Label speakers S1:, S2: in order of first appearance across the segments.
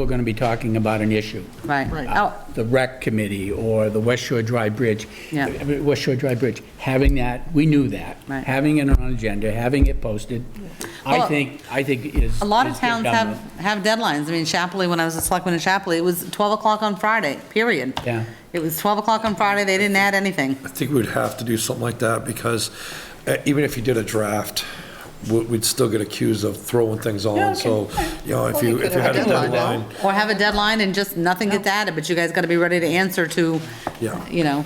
S1: we're going to be talking about an issue.
S2: Right.
S3: Right.
S2: Oh,
S1: The rec committee or the West Shore Drive Bridge.
S2: Yeah.
S1: I mean, West Shore Drive Bridge, having that, we knew that.
S2: Right.
S1: Having it on agenda, having it posted, I
S2: Well,
S1: think, I think is.
S2: A lot of
S1: is the
S2: towns have,
S1: government.
S2: have deadlines. I mean, Chapley, when I was a selectman in Chapley, it was 12 o'clock on Friday, period.
S1: Yeah.
S2: It was 12 o'clock on Friday, they didn't add anything.
S4: I think we'd have to do something like that because uh, even if you did a draft, we- we'd still get accused of throwing things on. So, you know, if you, if you had a deadline,
S2: Or have a deadline and just nothing gets added, but you guys got to be ready to answer to,
S4: Yeah.
S2: you know,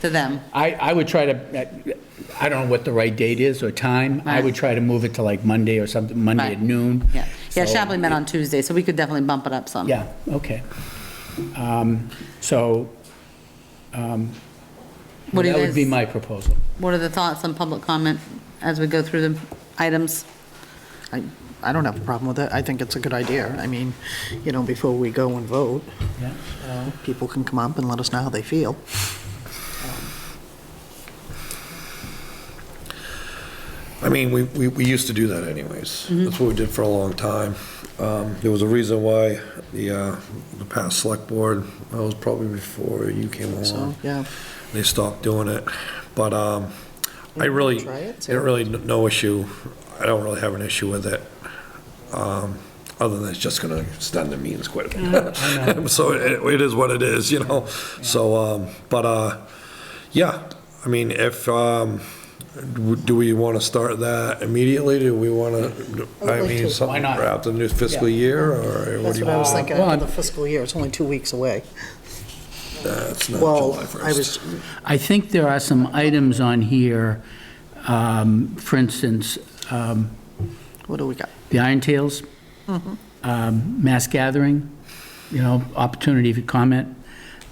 S2: to them.
S1: I, I would try to, I don't know what the right date is or time. I
S2: Right.
S1: would try to move it to like Monday or something, Monday
S2: Right.
S1: at noon.
S2: Yeah, yeah,
S1: So-
S2: Chapley met on Tuesday, so we could definitely bump it up some.
S1: Yeah, okay. Um, So
S2: What do
S1: that
S2: you
S1: would be
S2: guys,
S1: my proposal.
S2: what are the thoughts on public comment as we go through the items?
S3: I, I don't have a problem with it. I think it's a good idea. I mean, you know, before we go and vote,
S1: Yeah.
S3: you know, people can come up and let us know how they feel.
S4: I mean, we, we, we used to do that anyways.
S3: Mm-hmm.
S4: That's what we did for a long time. Um, There was a reason why the, uh, the past select board, that was probably before you came
S3: So,
S4: along.
S3: yeah.
S4: They stopped doing it. But um, I really,
S3: Try it, see.
S4: I really, n- no issue. I don't really have an issue with it. Um, Other than it's just going to extend the meetings quite
S3: Mm-hmm.
S4: a bit. So it, it is what it is, you know? So, um, but, uh, yeah, I mean, if, um, do we want to start that immediately? Do we want to, I mean, something
S1: not?
S4: for after the new fiscal
S1: Yeah.
S4: year or what
S3: That's
S4: do you
S3: what I was
S4: want?
S3: thinking,
S1: Well,
S3: after the fiscal year, it's only two weeks away.
S4: That's not
S3: Well,
S4: July
S3: I
S4: 1st.
S3: was,
S1: I think there are some items on here, um, for instance, um,
S3: what do we got?
S1: the Iron Tales, um, mass gathering, you know, opportunity for comment,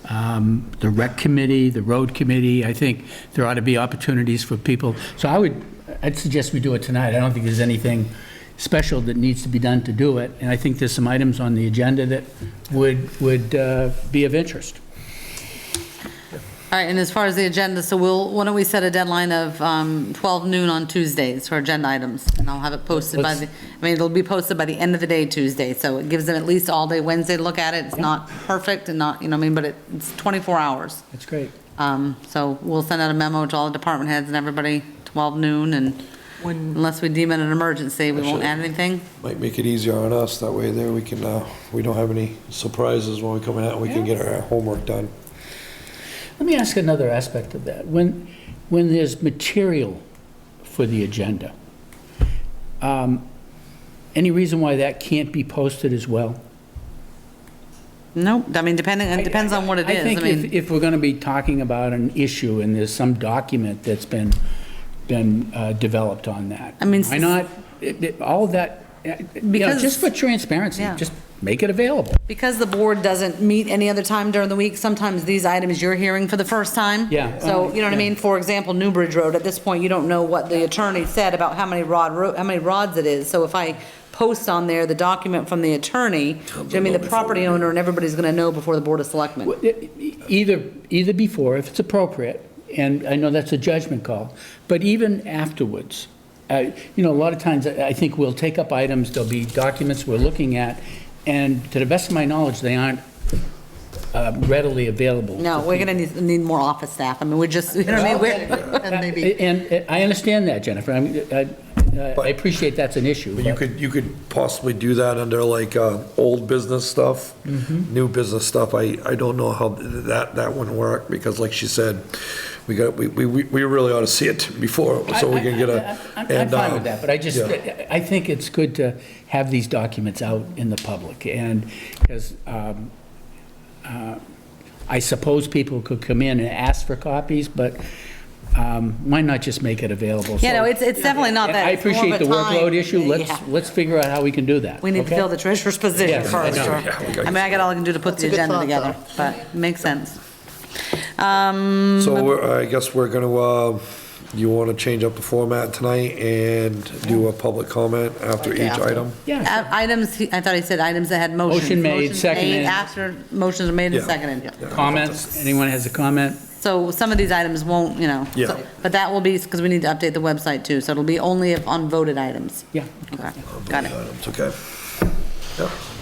S1: um, the rec committee, the road committee, I think there ought to be opportunities for people. So I would, I'd suggest we do it tonight. I don't think there's anything special that needs to be done to do it, and I think there's some items on the agenda that would, would uh, be of interest.
S2: All right, and as far as the agenda, so we'll, why don't we set a deadline of um, 12 noon on Tuesdays for agenda items? And I'll have it posted by
S1: Let's-
S2: the, I mean, it'll be posted by the end of the day Tuesday, so it gives them at least all day Wednesday to look at it. It's not perfect and not, you know, what I mean, but it- it's 24 hours.
S1: That's great.
S2: Um, So we'll send out a memo to all the department heads and everybody, 12 noon, and unless we deem it an emergency, we won't add anything.
S4: Might make it easier on us, that way there we can, uh, we don't have any surprises when we come out, we can get our homework done.
S1: Let me ask another aspect of that. When, when there's material for the agenda, um, any reason why that can't be posted as well?
S2: Nope, I mean, depending, it depends on what it is.
S1: I think
S2: mean-
S1: if, if we're going to be talking about an issue and there's some document that's been, been uh, developed on that.
S2: I mean,
S1: Why not, it- it- all of that, uh, you know,
S2: Because-
S1: just for transparency,
S2: Yeah.
S1: just make it available.
S2: Because the board doesn't meet any other time during the week, sometimes these items you're hearing for the first time.
S1: Yeah.
S2: So, you know what I mean? For example, Newbridge Road, at this point, you don't know what the attorney said about how many rod, ro- how many rods it is. So if I post on there the document from the
S1: Oh,
S2: attorney, do you know what I mean, the property owner and everybody's gonna know before the Board of Selectmen.
S1: Well, e- e- Either, either before, if it's appropriate, and I know that's a judgment call, but even afterwards. Uh, You know, a lot of times, I I think we'll take up items, there'll be documents we're looking at, and to the best of my knowledge, they aren't uh, readily available.
S2: No, we're gonna need, need more office staff. I mean, we're just, you know what I mean? We're-
S3: And maybe,
S1: And and I understand that, Jennifer, I mean, I- I I appreciate that's an issue.
S4: But you
S1: but-
S4: could, you could possibly do that under like, uh, old business stuff,
S1: Mm-hmm.
S4: new business stuff, I, I don't know how that, that wouldn't work, because like she said, we got, we, we, we really ought to see it before, so we can get
S1: I- I-
S4: a.
S1: I'm I'm
S4: and,
S1: fine
S4: um,
S1: with that, but I just,
S4: yeah.
S1: I think it's good to have these documents out in the public, and, because I suppose people could come in and ask for copies, but um, why not just make it available?
S2: You know,
S1: So-
S2: it's, it's definitely not
S1: And
S2: that.
S1: I
S2: It's more of
S1: appreciate
S2: a
S1: the workload
S2: time-
S1: issue, let's,
S2: Yeah.
S1: let's figure out how we can do that.
S2: We need to
S1: okay?
S2: fill the treasurer's position
S1: Yes, I
S2: first.
S1: know.
S2: or-
S4: Yeah, we
S2: I
S4: got-
S2: mean, I got all I can do to put the
S3: a good
S2: agenda
S3: thought,
S2: together, but it makes sense. Um,
S4: So we're, I guess we're gonna, uh, you wanna change up the format tonight and do a public comment after
S3: Like
S4: each
S3: after.
S4: item?
S1: Yeah,
S2: a- uh, Items, he- I thought he said items that had motions.
S1: Motion made,
S2: Motions
S1: seconded.
S2: After motions are made and
S4: Yeah.
S2: seconded.
S1: comments, anyone has a comment?
S2: So some of these items won't, you know. so-
S4: Yeah.
S2: But that will be, because we need to update the website too, so it'll be only if on voted items.
S1: Yeah.
S2: Okay, got it.
S4: Items, okay. Yeah.